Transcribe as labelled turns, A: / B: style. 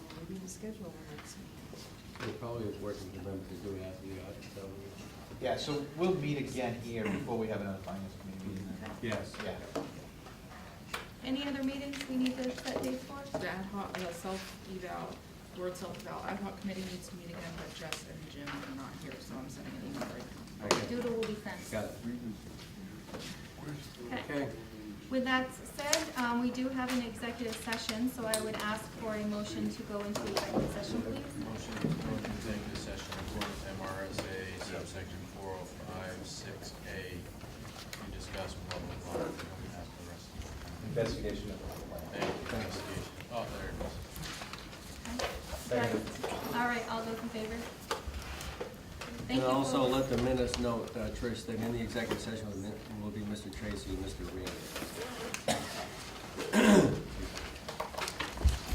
A: schedule our next meeting?
B: We're probably working to remember to do it after the audit, so.
C: Yeah, so we'll meet again here before we have another finance committee meeting.
B: Yes.
C: Yeah.
D: Any other meetings we need to set dates for?
E: The ad hoc, the self-eval, word self-eval, ad hoc committee needs to meet again, but Jess and Jim are not here, so I'm sending an email right now.
B: Okay.
D: Doodle will be sent.
B: Got it.
D: Okay.
B: Okay.
D: With that said, um, we do have an executive session, so I would ask for a motion to go into executive session, please.
F: Motion to go into executive session according to MRSA subsection four oh five six A to discuss blah blah blah. That's the rest of it.
C: Investigation of.
F: Thank you, investigation. Oh, there it is.
D: Okay? All right, all those in favor? Thank
B: And
D: you.
B: also
D: folks.
B: let the minutes note, uh, Trish, that in the executive session will be- will be Mr. Tracy and Mr. Rand.